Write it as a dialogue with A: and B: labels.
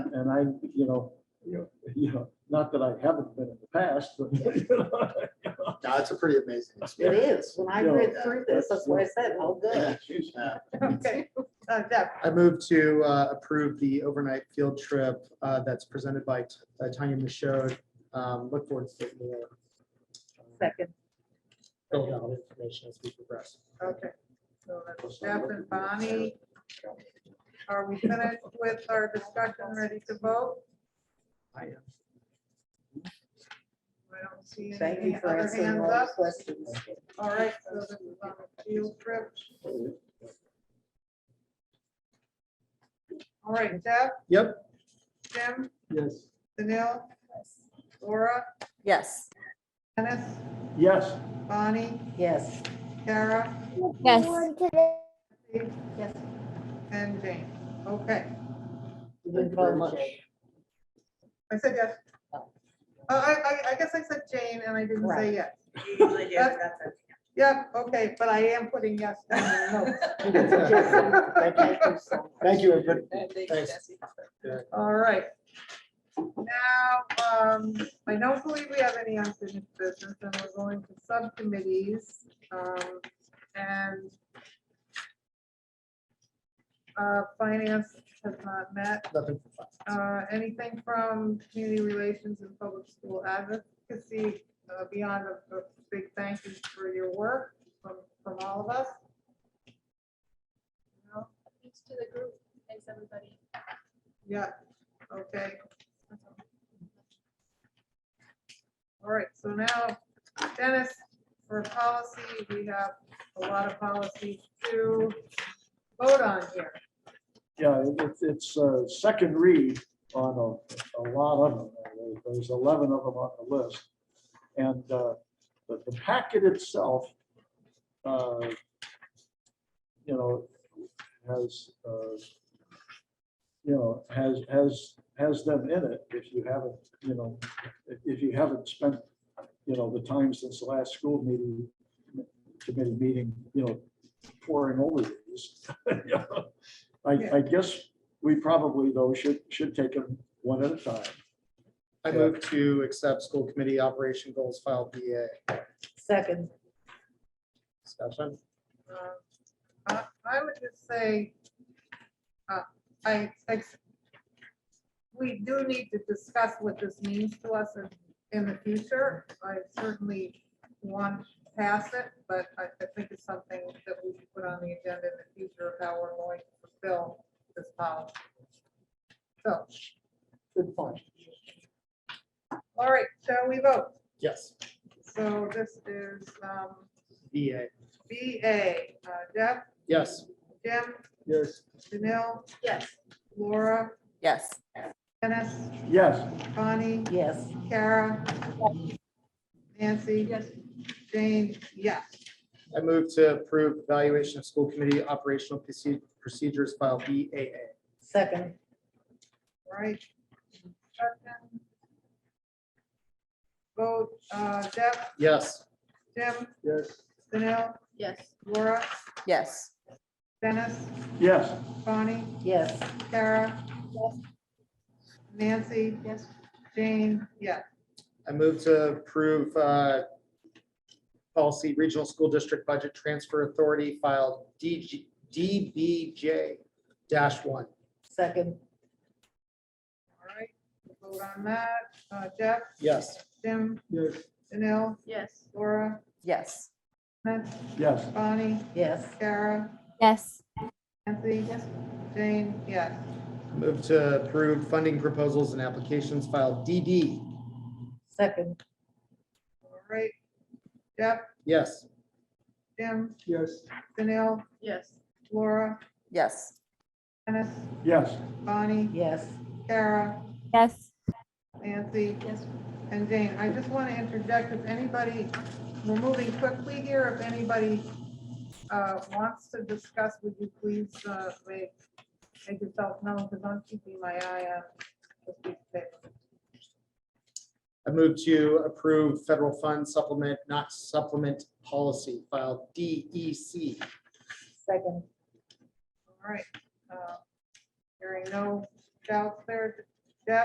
A: and I, you know,
B: Yeah.
A: you know, not that I haven't been in the past, but. you know,
C: No, it's a pretty amazing
D: It
C: experience.
D: is. When I
A: No,
D: read through this, that's what I said, oh, good.
A: excuse me.
C: Yeah.
E: Okay, uh, Deb,
C: I move to uh, approve the overnight field trip uh, that's presented by T- uh, Tanya Michaud. Um, Look forward to seeing more.
E: second,
C: Building out information as we progress.
E: okay. So that's Jeff and Bonnie. Are we finished with our discussion, ready to vote?
C: I am.
E: I don't see
D: Thank
E: any
D: you for
E: other
D: answering
E: hands
D: all the
E: up.
D: questions.
E: All right, so this is on a field trip. All right, Deb,
C: Yep.
E: Jim,
A: Yes.
E: Danil, Laura,
D: Yes.
E: Dennis,
A: Yes,
E: Bonnie,
D: Yes.
E: Kara,
F: Yes.
E: Steve,
D: Yes.
E: and Jane. Okay,
D: You didn't vote much.
E: I said yes. Oh, I, I, I guess I said Jane and I didn't
D: Right.
E: say yes. Yep, okay, but I am putting yes. down in the notes.
D: Thank you so much.
C: Thank you, everybody. Thanks.
E: All right. Now, um, I don't believe we have any unfinished business and we're going to subcommittees, um, and uh, finance has not met.
C: Nothing.
E: Uh, anything from community relations and public school advocacy, uh, beyond a, a big thank you for your work from, from all of us. No?
G: Thanks to the group. Thanks, everybody.
E: Yeah, okay. All right, so now Dennis, for policy, we have a lot of policies to vote on here.
A: yeah, it's, it's a second read on a, a lot of them. There's 11 of them on the list. And uh, the the packet itself, uh, you know, has, uh, you know, has, has, has them in it if you haven't, you know, if- if you haven't spent, you know, the time since the last school meeting, committee meeting, you know, pouring over these. I, I guess we probably though should, should take them one at a time.
C: I move to accept school committee operation goals file BA.
D: Second.
C: Discussion.
E: Uh, I I would just say, uh, I, I- we do need to discuss what this means to us in, in the future. I certainly want to pass it, but I I think it's something that we should put on the agenda in the future of how we're going to fulfill this policy. So,
D: Good point.
E: all right, shall we vote?
C: Yes,
E: So this is um,
C: BA.
E: BA, uh, Jeff,
C: Yes.
E: Jim,
C: Yes.
E: Janelle,
G: Yes.
E: Laura,
D: Yes.
E: Dennis,
A: Yes,
E: Bonnie,
D: Yes.
E: Kara, Nancy. Jane, yes.
C: I move to approve evaluation of school committee operational proce- procedures file BAA.
D: Second.
E: Right. Second. Vote, uh, Deb,
C: Yes.
E: Jim,
C: Yes.
E: Danil,
G: Yes.
E: Laura,
D: Yes.
E: Dennis,
A: yes,
E: Bonnie,
D: Yes.
E: Kara, Nancy,
G: Yes.
E: Jane, yes.
C: I move to approve uh, policy regional school district budget transfer authority file DG DBJ dash one.
D: Second.
E: All right, vote on that. Uh, Jeff,
C: Yes.
E: Jim,
C: Yes.
E: Danil,
G: Yes.
E: Laura,
D: Yes.
E: Dennis,
A: yes,
E: Bonnie,
D: Yes.
E: Kara,
F: Yes.
E: Nancy, Jane, yes.
C: Move to approve funding proposals and applications file DD.
D: Second.
E: All right. Jeff,
C: Yes.
E: Jim,
C: Yes.
E: Danil,
G: Yes.
E: Laura,
D: Yes.
E: Dennis,
A: yes,
E: Bonnie,
D: Yes.
E: Kara,
F: Yes.
E: Nancy,
G: Yes.
E: and Jane. I just want to interject if anybody, we're moving quickly here. If anybody uh, wants to discuss, would you please uh, make make yourself known because I'm keeping my eye on this piece of paper.
C: I move to approve federal fund supplement, not supplement policy E file DEC.
D: Second.
E: All right. uh, Hearing no doubts there.